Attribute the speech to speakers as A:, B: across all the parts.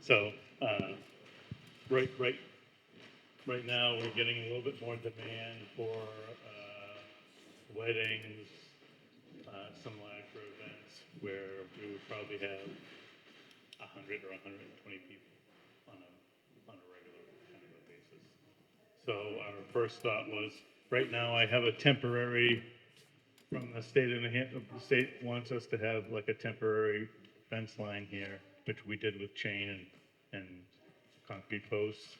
A: So, uh, right, right, right now, we're getting a little bit more demand for uh, weddings, uh, some lacro events where we would probably have a hundred or hundred and twenty people on a, on a regular kind of a basis. So our first thought was, right now I have a temporary, from the state of New Hampshire, the state wants us to have like a temporary fence line here, which we did with chain and, and concrete posts,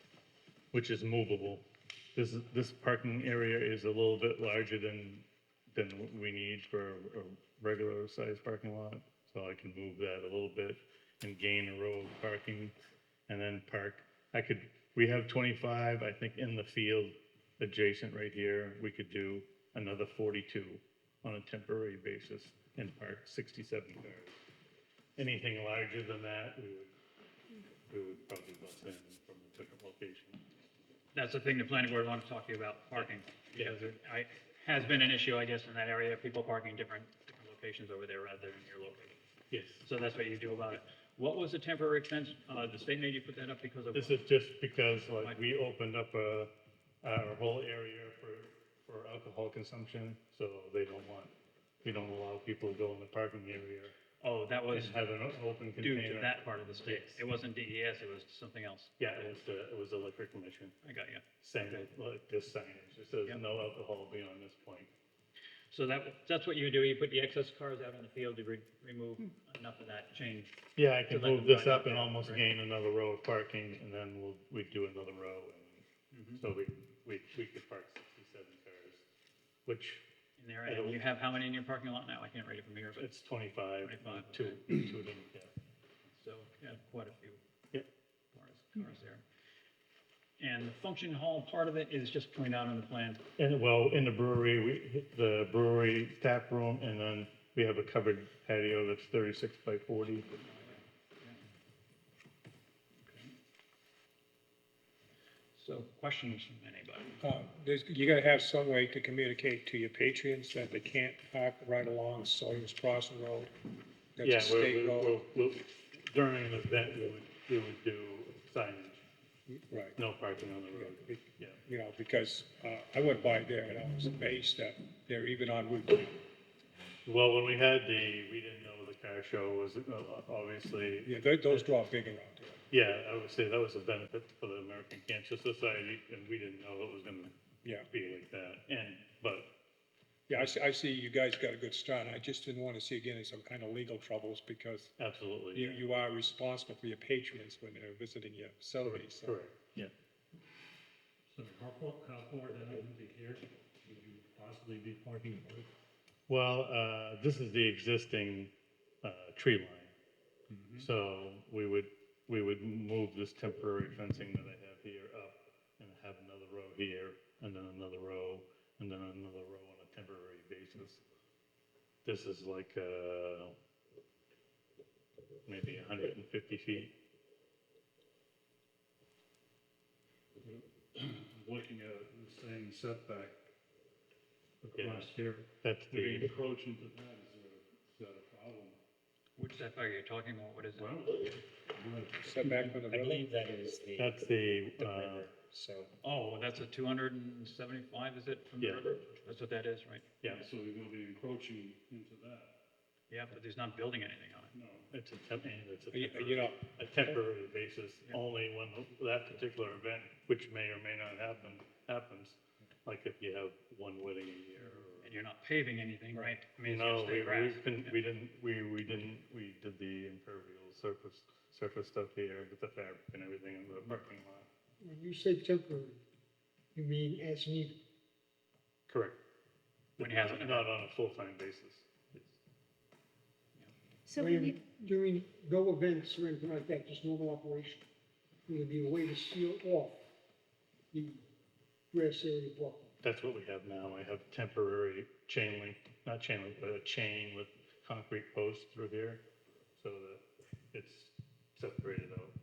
A: which is movable. This, is- this parking area is a little bit larger than, than we need for a regular sized parking lot. So I can move that a little bit and gain a row of parking and then park. I could, we have twenty-five, I think, in the field adjacent right here. We could do another forty-two on a temporary basis and park sixty-seven cars. Anything larger than that, we would we would probably bus in from a different location.
B: That's the thing the planning board wanted to talk to you about, parking. Because there- I, has been an issue, I guess, in that area, people parking different, different locations over there rather than your location.
A: Yes.
B: So that's what you do about it. What was the temporary fence? Uh, the state made you put that up because of,
A: This is just because like we opened up a, our whole area for, for alcohol consumption, so they don't want, we don't allow people to go in the parking area
B: oh, that was
A: and have an o- open
B: due to
A: container.
B: that part of the state.
A: Yes.
B: It wasn't DES, it was something else.
A: Yeah, it was the, it was the liquor commission
B: I got you.
A: saying that, like this signage, it says
B: Yep.
A: no alcohol beyond this point.
B: So that, that's what you do, you put the excess cars out in the field, you re- remove enough of that change.
A: Yeah, I can
B: So like
A: move
B: the
A: this
B: front
A: up and
B: door,
A: almost
B: right?
A: gain another row of parking, and then we'll, we do another row, and so we, we, we could park sixty-seven cars, which,
B: in there, and you have how many in your parking lot now? I can't read it from here, but
A: it's twenty-five, uh,
B: 25,
A: two, two of them, yeah.
B: so, yeah, quite a few
A: Yep.
B: cars, cars there. And the function hall part of it is just pointed out on the plan.
A: And, well, in the brewery, we, hit the brewery tap room, and then we have a covered patio that's thirty-six by forty.
B: So questions from anybody?
C: Uh, there's, you gotta have some way to communicate to your patrons that they can't park right along Sawyer's Crossing Road. That's a
A: Yeah, we're,
C: state
A: we're-
C: road.
A: we're, we're- during an event, we would, we would do signage,
C: Right,
A: no parking on the road,
C: Be-
A: yeah.
C: you know, because, uh, I went by there and I was amazed that they're even on Route two.
A: Well, when we had the, we didn't know the car show was uh, obviously,
C: Yeah, tho- those draw big around there.
A: yeah, I would say that was a benefit for the American Cancer Society, and we didn't know it was gonna
C: Yeah,
A: be like that, and, but,
C: yeah, I see, I see you guys got a good start. I just didn't wanna see again some kind of legal troubles because
A: absolutely.
C: you,
A: yeah.
C: you are responsible for your patrons when they're visiting your facility, so.
A: Correct, yeah.
D: So carport, carport, that wouldn't be here, would you possibly be parking it?
A: Well, uh, this is the existing, uh, tree line.
D: Mm-hmm.
A: So we would, we would move this temporary fencing that I have here up and have another row here and then another row and then another row on a temporary basis. This is like, uh, maybe hundred and fifty feet.
D: Looking at it and saying setback
A: Yeah.
D: across here,
A: That's
D: if you
A: the,
D: encroach into that, is there, is that a problem?
B: Which setback are you talking about? What is it?
C: Setback from the
E: I
C: road,
E: believe that is the,
A: that's the,
E: the
A: uh,
E: river, so.
B: Oh, that's a two hundred and seventy-five, is it, from the
A: Yeah.
B: river? That's what that is, right?
A: yeah,
D: So you're gonna be encroaching into that,
B: Yeah, but he's not building anything on it.
D: no.
A: it's a temp, and it's a
C: you,
A: temporary.
C: you know,
A: a temporary basis, only when that particular event, which may or may not happen, happens. Like if you have one wedding a year. or-
B: And you're not paving anything, right? I mean, it's
A: No,
B: gonna stay
A: we,
B: grass.
A: we couldn't, we didn't, we, we didn't, we did the impervial surface, surface stuff here with the fabric and everything in the parking lot.
F: When you say temporary, you mean as needed?
A: Correct.
B: When he has an
A: Not on a full-time basis.
G: So
F: Or
G: we
F: you're
G: need,
F: Doing no events or anything like that, just normal operation? Would it be a way to seal off the grass area block?
A: That's what we have now. I have temporary chain link, not chain link, but a chain with concrete posts through here so that it's separated out.